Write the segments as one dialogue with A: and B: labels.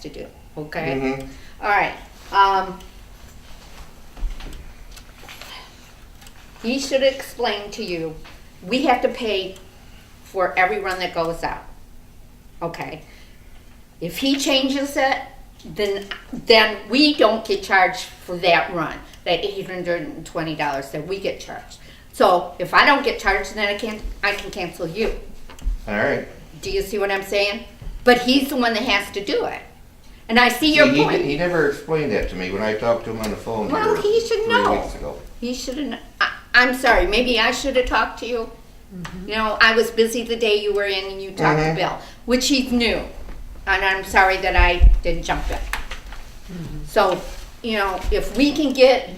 A: to do, okay? All right, um. He should explain to you, we have to pay for every run that goes out, okay? If he changes it, then, then we don't get charged for that run, that eight hundred and twenty dollars that we get charged. So if I don't get charged, then I can't, I can cancel you.
B: All right.
A: Do you see what I'm saying? But he's the one that has to do it. And I see your
B: he,
A: point.
B: He, he never explained that to me when I talked to him on the phone.
A: Well,
B: here
A: he should
B: three
A: know.
B: Weeks ago.
A: He shouldn't, I, I'm sorry, maybe I should have talked to you. You know, I was busy the day you were in and you talked to
B: Mhm.
A: Bill, which he knew. And I'm sorry that I didn't jump in. So, you know, if we can get,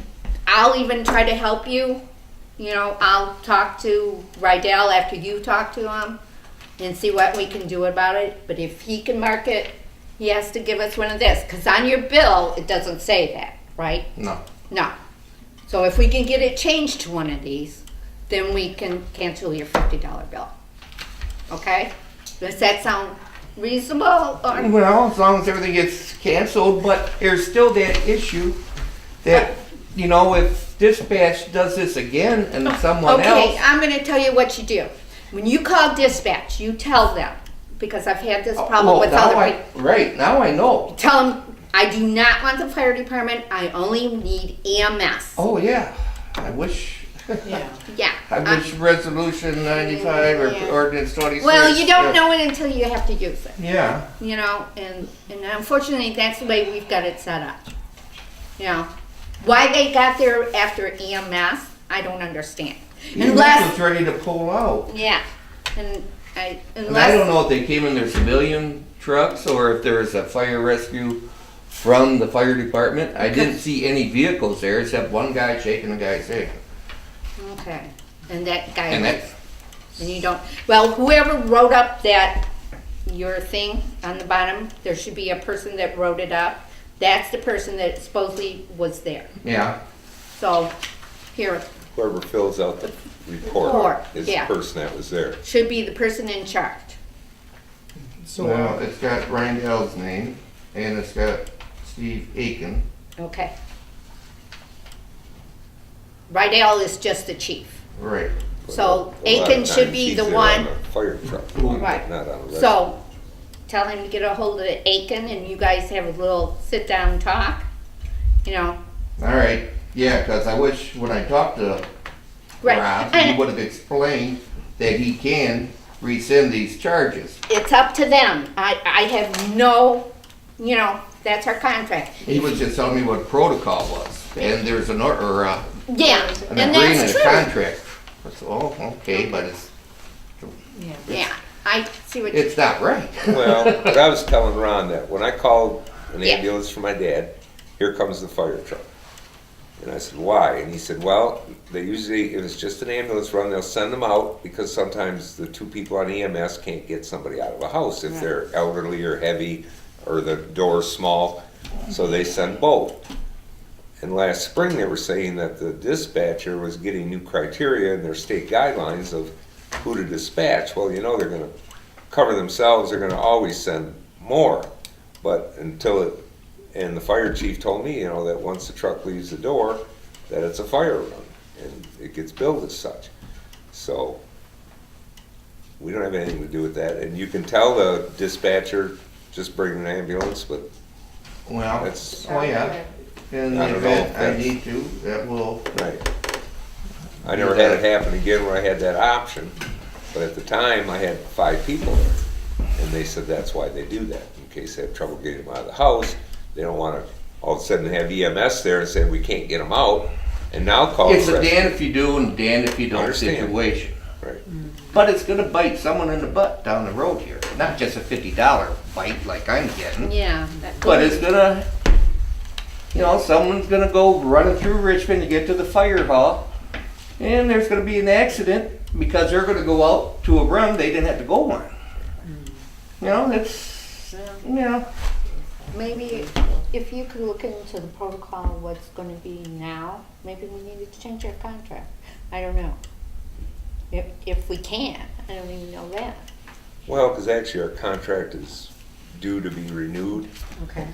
A: I'll even try to help you. You know, I'll talk to Rydell after you talk to him and see what we can do about it. But if he can mark it, he has to give us one of this, because on your bill, it doesn't say that, right?
B: No.
A: No. So if we can get it changed to one of these, then we can cancel your fifty dollar bill. Okay? Does that sound reasonable or?
B: Well, as long as everything gets canceled, but there's still that issue that you know if dispatch does this again and someone
A: Oh, Okay,
B: else.
A: I'm gonna tell you what you do. When you call dispatch, you tell them, because I've had this problem
B: Well,
A: with
B: Oh, now
A: other
B: I-
A: people.
B: Right now, I know.
A: Tell them, I do not want the fire department, I only need E EMS.
B: Oh yeah, I wish.
C: Yeah,
A: Yeah. uh,
B: I
A: I-
B: wish resolution 95 or
A: Yeah.
B: ordinance 26.
A: Well, you
B: yeah.
A: don't know it until you have to use it.
B: Yeah.
A: you know, and, and unfortunately, that's the way we've got it set up. You know, why they got there after EMS, I don't understand.
B: EMS
A: Unless,
B: was ready to pull out.
A: yeah, and I,
B: And I don't
A: unless,
B: know if they came in their civilian trucks or if there was a fire rescue from the fire department. I didn't see any vehicles there except one guy shaking the guy's hand.
A: okay, and that guy, and
B: And that's,
A: you don't, well, whoever wrote up that, your thing on the bottom, there should be a person that wrote it up. That's the person that supposedly was there.
B: yeah,
A: So, here,
D: Whoever fills out the
A: Report,
D: report is the
A: yeah.
D: person that was there.
A: should be the person in charge.
C: so,
B: well,
C: uh,
B: it's got Ryan Dell's name and it's got Steve Aiken.
A: Okay. Rydell is just the chief.
B: Right.
A: So
D: A lot of
A: Aiken should
D: times
A: be
D: he's
A: the
D: there on
A: one,
D: a Fire truck,
A: Right.
D: not on a rescue.
A: so tell him to get a hold of Aiken and you guys have a little sit down talk, you know.
B: All right, yeah, cause I wish when I talked to
A: Right,
B: Rob, he
A: and
B: would have explained that he can rescind these charges.
A: it's up to them. I, I have no, you know, that's our contract.
B: He was just telling me what protocol was and there's an, or- or, uh,
A: Yeah,
B: an
A: and that's
B: agreement, a
A: true.
B: contract. That's, oh, okay, but it's,
C: yeah.
A: Yeah, I see what you,
B: it's not right.
D: Well, but I was telling Ron that when I called an
A: Yeah.
D: ambulance for my dad, here comes the fire truck. And I said, why? And he said, well, they usually, if it's just an ambulance run, they'll send them out because sometimes the two people on EMS can't get somebody out of a house if they're elderly or heavy or the door's small. So they send both. And last spring, they were saying that the dispatcher was getting new criteria in their state guidelines of who to dispatch. Well, you know, they're gonna cover themselves, they're gonna always send more. But until it, and the fire chief told me, you know, that once the truck leaves the door, that it's a fire run, and it gets billed as such. So, we don't have anything to do with that, and you can tell the dispatcher, just bring an ambulance, but
B: Well,
D: That's-
B: oh yeah, in
D: I
B: the
D: don't
B: event
D: know,
B: I
D: that's-
B: need to, that will,
D: Right. I never had it happen again where I had that option, but at the time, I had five people there. And they said that's why they do that, in case they have trouble getting them out of the house. They don't wanna all of a sudden have EMS there and say, we can't get them out, and now call
B: it's
D: the
B: a
D: rescue.
B: Dan if you do and Dan if you don't
D: Understand.
B: situation.
D: Right.
B: But it's gonna bite someone in the butt down the road here, not just a fifty dollar bite like I'm getting,
A: yeah. that-
B: but it's gonna, you know, someone's gonna go running through Richmond to get to the fire hall, and there's gonna be an accident because they're gonna go out to a run they didn't have to go on. You know, it's, you know,
A: Maybe if you could look into the protocol, what's gonna be now, maybe we needed to change our contract. I don't know. If, if we can, I don't even know that.
D: Well, because actually our contract is
E: due to be renewed.
D: Okay.